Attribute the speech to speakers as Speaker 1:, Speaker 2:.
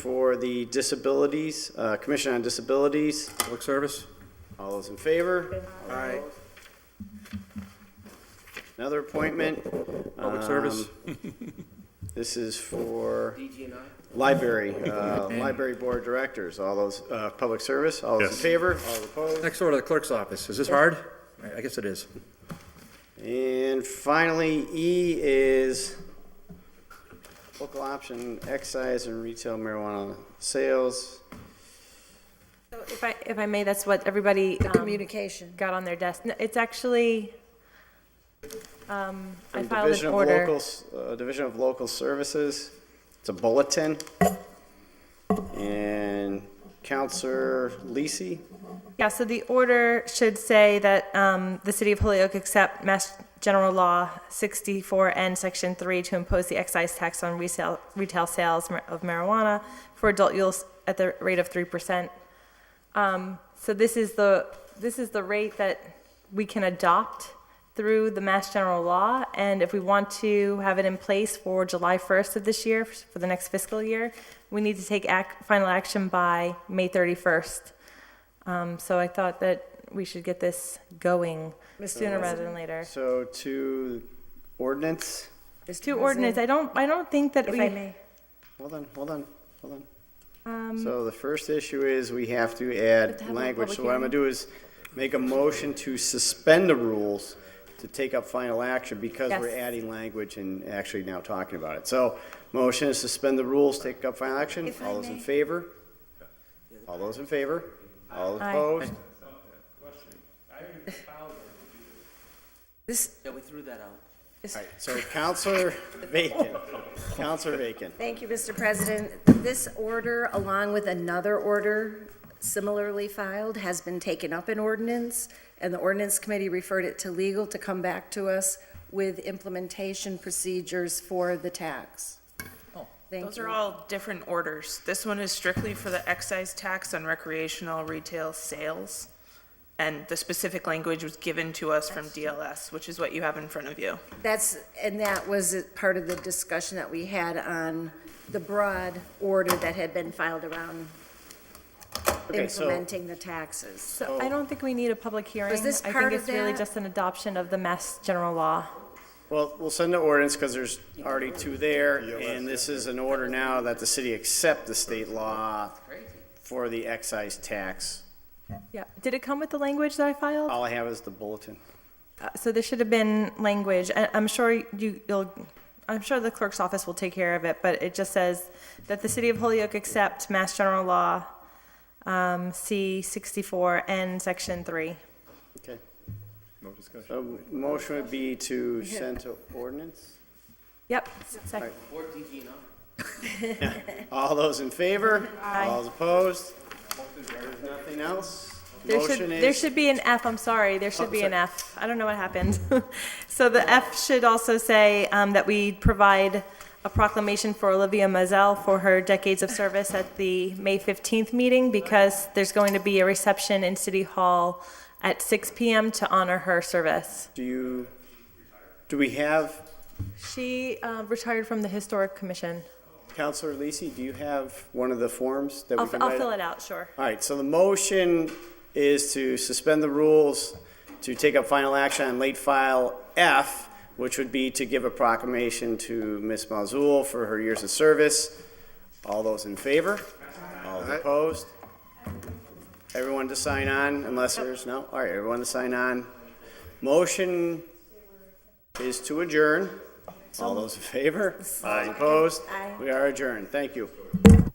Speaker 1: for the disabilities, uh, Commission on Disabilities.
Speaker 2: Public Service?
Speaker 1: All those in favor?
Speaker 2: Aye.
Speaker 1: Another appointment. Um,
Speaker 2: Public Service?
Speaker 1: This is for library, uh, library board directors, all those, uh, public service, all those in
Speaker 3: Yes.
Speaker 1: favor, all opposed.
Speaker 2: Next door to the clerk's office. Is this hard? I I guess it is.
Speaker 1: And finally, E is local option excise and retail marijuana sales.
Speaker 4: So If I, if I may, that's what everybody um,
Speaker 5: Communication.
Speaker 4: got on their desk. No, It's actually, um, I
Speaker 1: from
Speaker 4: filed
Speaker 1: Division
Speaker 4: an
Speaker 1: of
Speaker 4: order.
Speaker 1: Locals- uh, Division of Local Services, it's a bulletin. And Counselor Lisi,
Speaker 4: Yeah, so the order should say that um, the city of Holyoke accept Mass General Law 64N, Section 3, to impose the excise tax on resale, retail sales mar- of marijuana for adult use at the rate of 3%. Um, So this is the, this is the rate that we can adopt through the Mass General Law, and if we want to have it in place for July 1st of this year, for the next fiscal year, we need to take ac final action by May 31st. Um, So I thought that we should get this going sooner rather than later.
Speaker 1: so to ordinance,
Speaker 4: To ordinance, I don't, I don't think that
Speaker 5: If
Speaker 4: we.
Speaker 5: I may,
Speaker 1: hold on, hold on, hold on. So the first issue is we have to add
Speaker 4: Um, have a
Speaker 1: language,
Speaker 4: public
Speaker 1: so what I'm gonna do is make a motion to suspend the rules to take up final action because we're
Speaker 4: Yes.
Speaker 1: adding language and actually now talking about it. So, motion is suspend the rules, take up final action,
Speaker 5: If I
Speaker 1: all those in
Speaker 5: may.
Speaker 1: favor? All those in favor? All
Speaker 4: Aye.
Speaker 1: opposed?
Speaker 5: this,
Speaker 6: Yeah, we threw that out.
Speaker 1: All right, so Counselor Bacon, Counselor Bacon.
Speaker 5: thank you, Mr. President. This order, along with another order similarly filed, has been taken up in ordinance, and the ordinance committee referred it to legal to come back to us with implementation procedures for the tax. Thank
Speaker 7: Those are
Speaker 5: you.
Speaker 7: all different orders. This one is strictly for the excise tax on recreational retail sales. And the specific language was given to us from DLS, which is what you have in front of you.
Speaker 5: That's, and that was a part of the discussion that we had on the broad order that had been filed around
Speaker 1: Okay, so-
Speaker 5: implementing the taxes.
Speaker 4: So I don't think we need a public hearing.
Speaker 5: Was this
Speaker 4: I
Speaker 5: part
Speaker 4: think it's
Speaker 5: of
Speaker 4: really
Speaker 5: that?
Speaker 4: just an adoption of the Mass General Law.
Speaker 1: Well, we'll send the ordinance because there's already two there, and this is an order now that the city accept the state law for the excise tax.
Speaker 4: Yeah, did it come with the language that I filed?
Speaker 1: All I have is the bulletin.
Speaker 4: Uh, So there should have been language, I I'm sure you, you'll, I'm sure the clerk's office will take care of it, but it just says that the city of Holyoke accept Mass General Law, um, C sixty-four and section three.
Speaker 1: Okay. No discussion. So motion would be to send to ordinance.
Speaker 4: Yep, sec-
Speaker 6: Or DG and
Speaker 1: All those in favor?
Speaker 4: Aye.
Speaker 1: All opposed? There's nothing else?
Speaker 4: There
Speaker 1: Motion
Speaker 4: should, there
Speaker 1: is, Oh,
Speaker 4: should be an F, I'm sorry, there should be an
Speaker 1: sorry.
Speaker 4: F. I don't know what happened. So the F should also say um, that we provide a proclamation for Olivia Mazel for her decades of service at the May 15th meeting because there's going to be a reception in City Hall at 6 PM to honor her service.
Speaker 1: do you, do we have,
Speaker 4: She uh, retired from the Historic Commission.
Speaker 1: Counselor Lisi, do you have one of the forms that we
Speaker 4: I'll
Speaker 1: can
Speaker 4: I'll
Speaker 1: write?
Speaker 4: fill it out, sure.
Speaker 1: All right, so the motion is to suspend the rules to take up final action on late file F, which would be to give a proclamation to Ms. Mazul for her years of service. All those in favor? All opposed? Everyone to sign on unless there's, no? All right, everyone to sign on. Motion is to adjourn. All those in favor? All opposed?
Speaker 5: Aye.
Speaker 1: We are adjourned. Thank you.